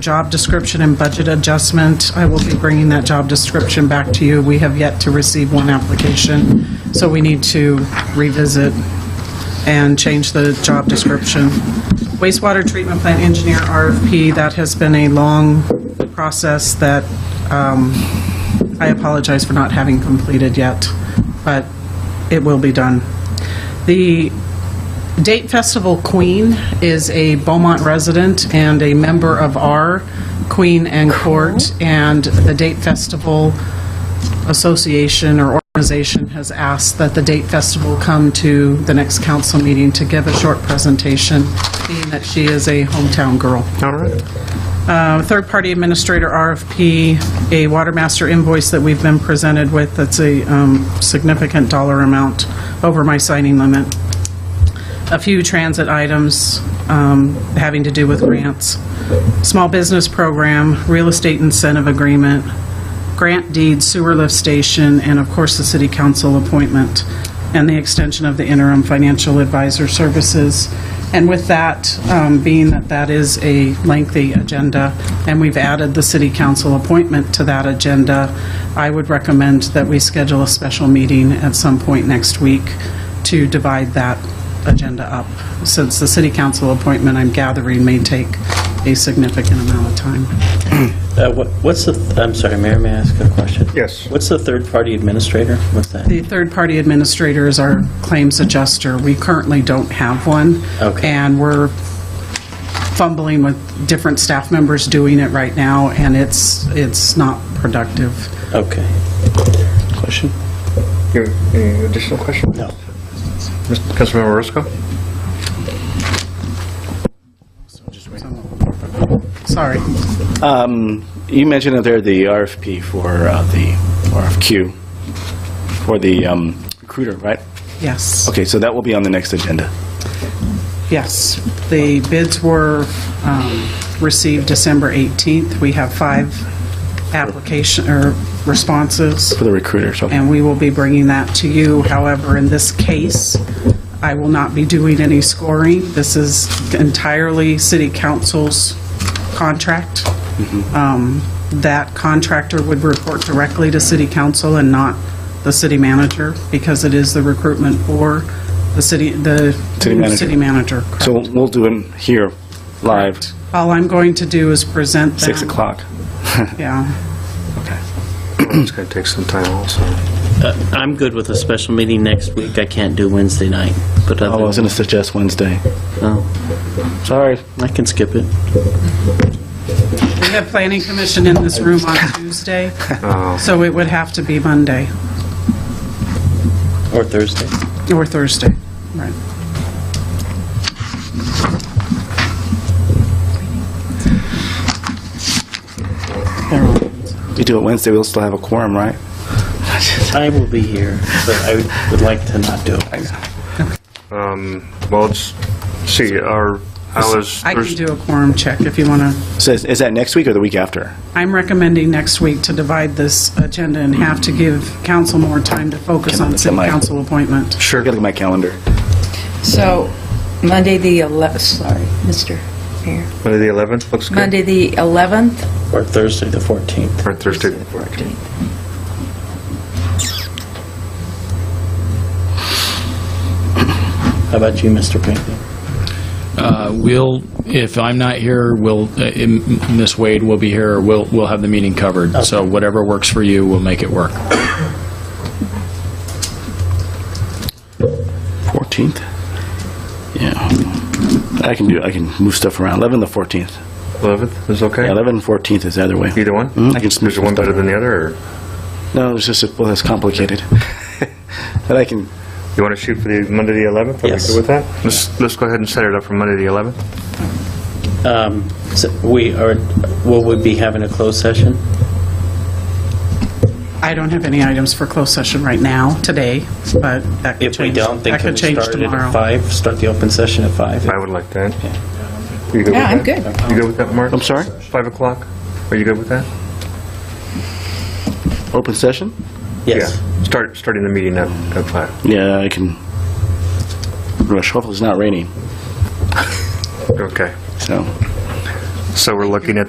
Job description and budget adjustment, I will be bringing that job description back to you. We have yet to receive one application, so we need to revisit and change the job description. Wastewater treatment plant engineer RFP, that has been a long process that um, I apologize for not having completed yet, but it will be done. The Date Festival Queen is a Beaumont resident and a member of our Queen and Court, and the Date Festival Association or organization has asked that the Date Festival come to the next council meeting to give a short presentation, being that she is a hometown girl. All right. Uh, Third-party administrator RFP, a Watermaster invoice that we've been presented with that's a um, significant dollar amount over my signing limit. A few transit items um, having to do with grants. Small business program, real estate incentive agreement, grant deed sewer lift station, and of course, the city council appointment, and the extension of the interim financial advisor services. And with that, um, being that that is a lengthy agenda, and we've added the city council appointment to that agenda, I would recommend that we schedule a special meeting at some point next week to divide that agenda up, since the city council appointment, I'm gathering, may take a significant amount of time. Uh, what- What's the, th- I'm sorry, Mayor, may I ask a question? Yes. What's the third-party administrator? What's that? The third-party administrator is our claims adjuster. We currently don't have one. Okay. And we're fumbling with different staff members doing it right now, and it's, it's not productive. Okay. Question? Your- Any additional question? No. Mr. Councilmember Roscoe? Sorry. You mentioned that there the RFP for uh, the RFQ for the um, recruiter, right? Yes. Okay, so that will be on the next agenda. Yes. The bids were um, received December 18th. We have five application, or responses. For the recruiter, so. and we will be bringing that to you. However, in this case, I will not be doing any scoring. This is entirely city council's contract. Mm-hmm. Um, That contractor would report directly to city council and not the city manager, because it is the recruitment for the city, the City manager. city manager. So we'll do them here, live, All I'm going to do is present them. 6 o'clock. Yeah. Okay. It's going to take some time also. Uh, I'm good with a special meeting next week. I can't do Wednesday night, but uh, Oh, I other was than, going to suggest Wednesday. oh, Sorry. I can skip it. We have planning commission in this room on Tuesday, Oh. so it would have to be Monday. Or Thursday. Or Thursday, right. We do it Wednesday, we'll still have a quorum, right? I will be here, but I would- would like to not do it. Well, let's see, our hours... I can do a quorum check if you want to. So is is that next week or the week after? I'm recommending next week to divide this agenda in half to give council more time to focus on city Am I- council appointment. Sure. I got to look at my calendar. So, Monday the 11th, sorry, Mr. Mayor. Monday the 11th, looks good? Monday the 11th? Or Thursday, the 14th. Or Thursday? the 14th. 14th. How about you, Mr. Pinckney? Uh, We'll, if I'm not here, we'll, uh, M- Ms. Wade will be here, we'll, we'll have the meeting covered. So whatever works for you, we'll make it work. 14th? Yeah. I can do, I can move stuff around. 11 to 14th. 11th is okay? Yeah, 11 and 14th is the other way. Either one? Mhm, I can just move Is one some stuff better than the other, or No, it's just, well, that's complicated. But I can, you want to shoot for the Monday the 11th? Are we Yes. good with that? Let's, let's go ahead and set it up for Monday the 11th. Um, so We are, will we be having a closed session? I don't have any items for closed session right now, today, but that could change. If we don't, then that could can we change start it at tomorrow. 5? Start the open session at 5? I would like that. You good with Yeah, that? I'm good. You good with that, Mark? I'm sorry? 5 o'clock? Are you good with that? Open session? Yes. Yeah. Start, starting the meeting at at 5. Yeah, I can. Rush. Hopefully, it's not raining. Okay. So. So we're looking at the